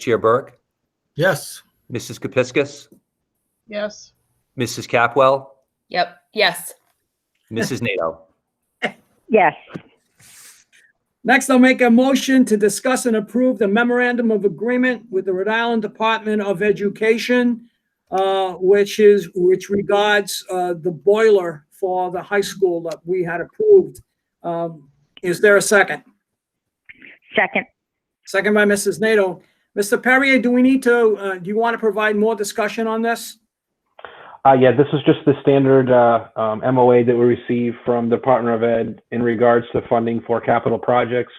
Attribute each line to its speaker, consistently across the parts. Speaker 1: Chair Burke,
Speaker 2: Yes.
Speaker 1: Mrs. Kepiscus,
Speaker 3: Yes.
Speaker 1: Mrs. Capwell,
Speaker 4: Yep. Yes.
Speaker 1: Mrs. NATO.
Speaker 5: Yes,
Speaker 6: Next, I'll make a motion to discuss and approve the memorandum of agreement with the Rhode Island Department of Education, uh, which is, which regards uh, the boiler for the high school that we had approved. Um, Is there a second?
Speaker 5: second.
Speaker 6: Second by Mrs. NATO. Mr. Perrier, do we need to, uh, do you want to provide more discussion on this?
Speaker 7: Uh, yeah, this is just the standard uh, um, MOA that we receive from the Department of Ed in regards to funding for capital projects.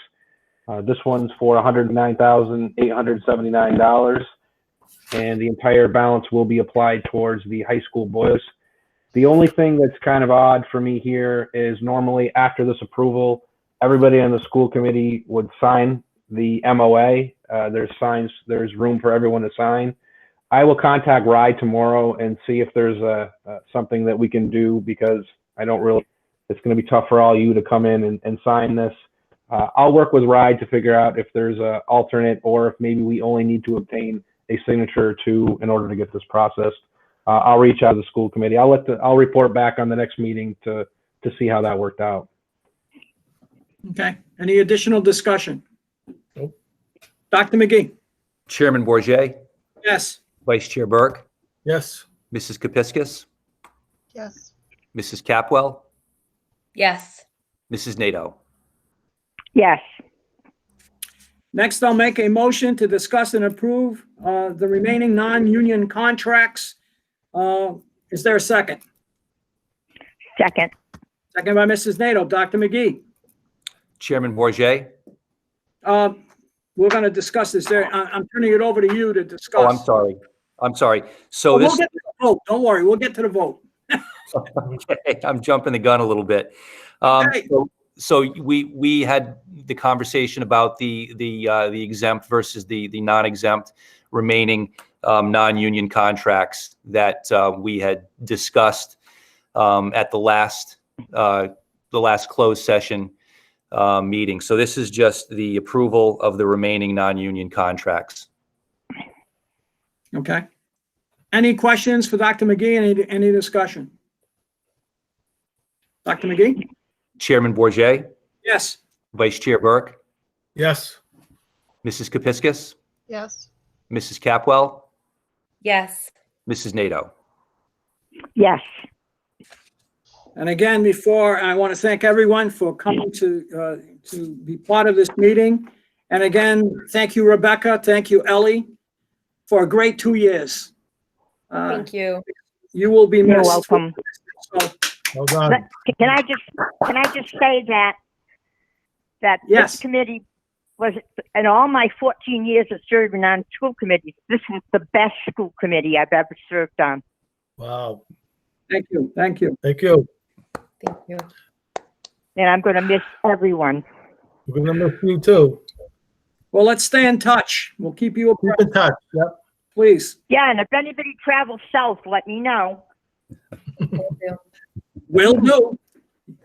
Speaker 7: Uh, this one's for $109,879, and the entire balance will be applied towards the high school boys. The only thing that's kind of odd for me here is normally after this approval, everybody on the school committee would sign the MOA. Uh, there's signs, there's room for everyone to sign. I will contact Rye tomorrow and see if there's a, uh, something that we can do because I don't really, it's going to be tough for all you to come in and, and sign this. Uh, I'll work with Rye to figure out if there's a alternate or if maybe we only need to obtain a signature to, in order to get this processed. Uh, I'll reach out to the school committee. I'll let the, I'll report back on the next meeting to, to see how that worked out.
Speaker 6: Okay, any additional discussion?
Speaker 2: Nope.
Speaker 6: Dr. McGee?
Speaker 1: Chairman Bourget,
Speaker 6: Yes.
Speaker 1: Vice Chair Burke,
Speaker 2: Yes.
Speaker 1: Mrs. Kepiscus,
Speaker 3: Yes.
Speaker 1: Mrs. Capwell,
Speaker 4: Yes.
Speaker 1: Mrs. NATO.
Speaker 5: Yes,
Speaker 6: Next, I'll make a motion to discuss and approve uh, the remaining non-union contracts. Uh, Is there a second?
Speaker 5: second.
Speaker 6: Second by Mrs. NATO. Dr. McGee,
Speaker 1: Chairman Bourget,
Speaker 6: uh, we're going to discuss this there. I- I'm turning it over to you to discuss.
Speaker 1: oh, I'm sorry. I'm sorry. So
Speaker 6: But We'll
Speaker 1: this,
Speaker 6: get to the vote. Don't worry, we'll get to the vote.
Speaker 1: I'm jumping the gun a little bit. Um,
Speaker 6: Okay.
Speaker 1: so- So we, we had the conversation about the, the, uh, the exempt versus the, the non-exempt remaining um, non-union contracts that uh, we had discussed um, at the last, uh, the last closed session uh, meeting. So this is just the approval of the remaining non-union contracts.
Speaker 6: Okay. Any questions for Dr. McGee? Any, any discussion? Dr. McGee?
Speaker 1: Chairman Bourget,
Speaker 6: Yes.
Speaker 1: Vice Chair Burke,
Speaker 2: Yes.
Speaker 1: Mrs. Kepiscus,
Speaker 3: Yes.
Speaker 1: Mrs. Capwell,
Speaker 4: Yes.
Speaker 1: Mrs. NATO.
Speaker 5: Yes,
Speaker 6: And again, before, I want to thank everyone for coming to, uh, to be part of this meeting. And again, thank you, Rebecca. Thank you, Ellie, for a great two years. Uh,
Speaker 4: Thank you.
Speaker 6: You will be
Speaker 5: you're
Speaker 6: missed.
Speaker 5: welcome.
Speaker 6: So,
Speaker 2: Well done.
Speaker 5: Let- Can I just, can I just say that, that
Speaker 6: Yes.
Speaker 5: this committee was, in all my 14 years of serving on school committees, this is the best school committee I've ever served on.
Speaker 2: Wow.
Speaker 6: Thank you, thank you.
Speaker 2: Thank you.
Speaker 4: Thank you.
Speaker 5: And I'm going to miss everyone.
Speaker 2: We're gonna miss you too.
Speaker 6: Well, let's stay in touch. We'll keep you
Speaker 2: Keep
Speaker 6: abreast,
Speaker 2: in touch. Yep.
Speaker 6: please.
Speaker 5: Yeah, and if anybody travels south, let me know.
Speaker 4: Thank you.
Speaker 6: Will do.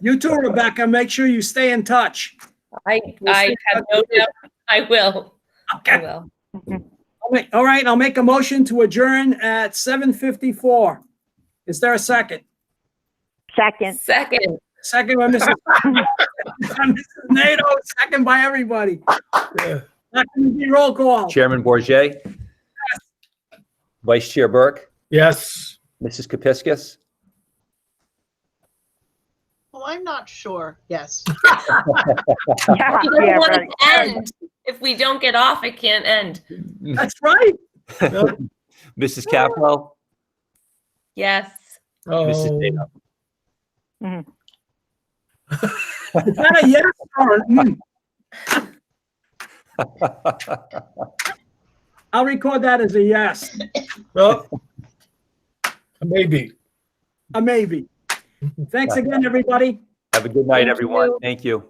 Speaker 6: You too, Rebecca. Make sure you stay in touch.
Speaker 4: I,
Speaker 6: We'll
Speaker 4: I
Speaker 6: see
Speaker 4: have no
Speaker 6: how-
Speaker 4: doubt. I will. I
Speaker 6: Okay.
Speaker 4: will.
Speaker 6: All right, All right, I'll make a motion to adjourn at 7:54. Is there a second?
Speaker 5: Second.
Speaker 4: Second.
Speaker 6: Second by Mrs. Mrs. NATO, second by everybody.
Speaker 2: Yeah.
Speaker 6: Dr. McGee, roll call.
Speaker 1: Chairman Bourget, Vice Chair Burke,
Speaker 2: Yes.
Speaker 1: Mrs. Kepiscus,
Speaker 3: Well, I'm not sure. Yes.
Speaker 5: Yeah,
Speaker 4: You don't
Speaker 5: yeah,
Speaker 4: want
Speaker 5: right.
Speaker 4: it to end. If we don't get off, it can't end.
Speaker 6: That's right.
Speaker 1: Mrs. Capwell,
Speaker 4: Yes.
Speaker 1: Mrs.
Speaker 2: Oh,
Speaker 1: Dana.
Speaker 6: Is that a yes or a hmm? I'll record that as a yes,
Speaker 2: Oh. well, maybe.
Speaker 6: a maybe. Thanks again, everybody.
Speaker 1: Have a good night, everyone. Thank you.